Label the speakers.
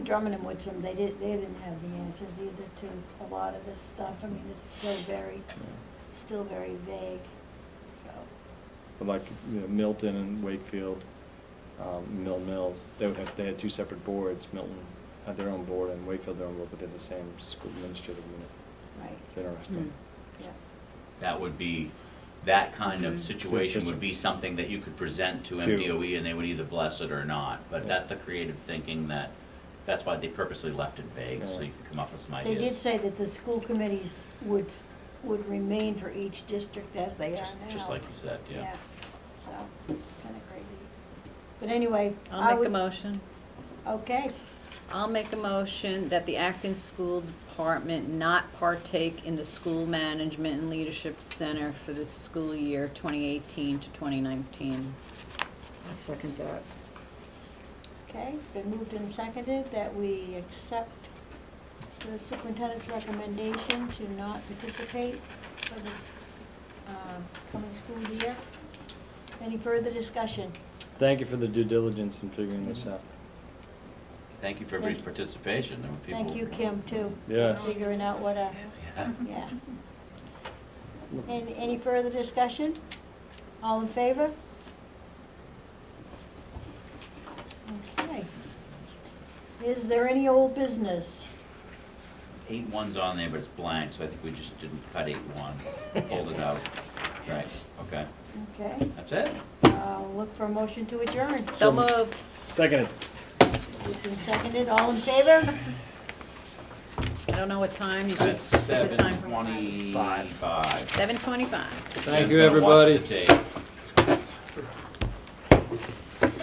Speaker 1: Drummond and Woodson, they did, they didn't have the answers either to a lot of this stuff. I mean, it's still very, it's still very vague, so.
Speaker 2: But like, you know, Milton and Wakefield, um, Mill Mills, they would have, they had two separate boards. Milton had their own board and Wakefield their own board, but they're the same school administrative unit.
Speaker 1: Right,
Speaker 2: It's interesting.
Speaker 1: yeah.
Speaker 3: That would be, that kind of situation
Speaker 2: Situation.
Speaker 3: would be something that you could present to
Speaker 2: To-
Speaker 3: MDOE and they would either bless it or not. But
Speaker 2: Yeah.
Speaker 3: that's the creative thinking that, that's why they purposely left it vague, so
Speaker 2: Yeah.
Speaker 3: you could come up with some
Speaker 1: They did
Speaker 3: ideas.
Speaker 1: say that the school committees would, s- would remain for each district as they are now.
Speaker 3: Just- Just like you said, yeah.
Speaker 1: So, kinda crazy. But anyway, I
Speaker 4: I'll make a
Speaker 1: would,
Speaker 4: motion.
Speaker 1: okay,
Speaker 4: I'll make a motion that the Acton School Department not partake in the School Management and Leadership Center for the school year 2018 to 2019.
Speaker 5: I second that.
Speaker 1: okay, it's been moved and seconded that we accept the superintendent's recommendation to not participate for this, um, coming school year. Any further discussion?
Speaker 2: Thank you for the due diligence in figuring this out.
Speaker 3: Thank you for everybody's participation. There were people.
Speaker 1: Thank you, Kim, too. for
Speaker 2: Yes.
Speaker 1: Figuring out what a,
Speaker 3: Yeah.
Speaker 1: yeah. And any further discussion? All in favor? Okay. Is there any old business?
Speaker 3: Eight one's on there, but it's blank, so I think we just didn't cut eight one, pulled it out. Right, okay.
Speaker 1: Okay,
Speaker 3: That's it?
Speaker 1: uh, look for a motion to adjourn.
Speaker 4: So moved.
Speaker 2: Seconded.
Speaker 1: Moved and seconded, all in favor?
Speaker 4: I don't know what time you did.
Speaker 3: That's
Speaker 4: the
Speaker 3: seven
Speaker 4: time.
Speaker 3: twenty-five.
Speaker 4: 7:25.
Speaker 2: Thank
Speaker 3: Ben's
Speaker 2: you,
Speaker 3: gonna watch
Speaker 2: everybody.
Speaker 3: the tape.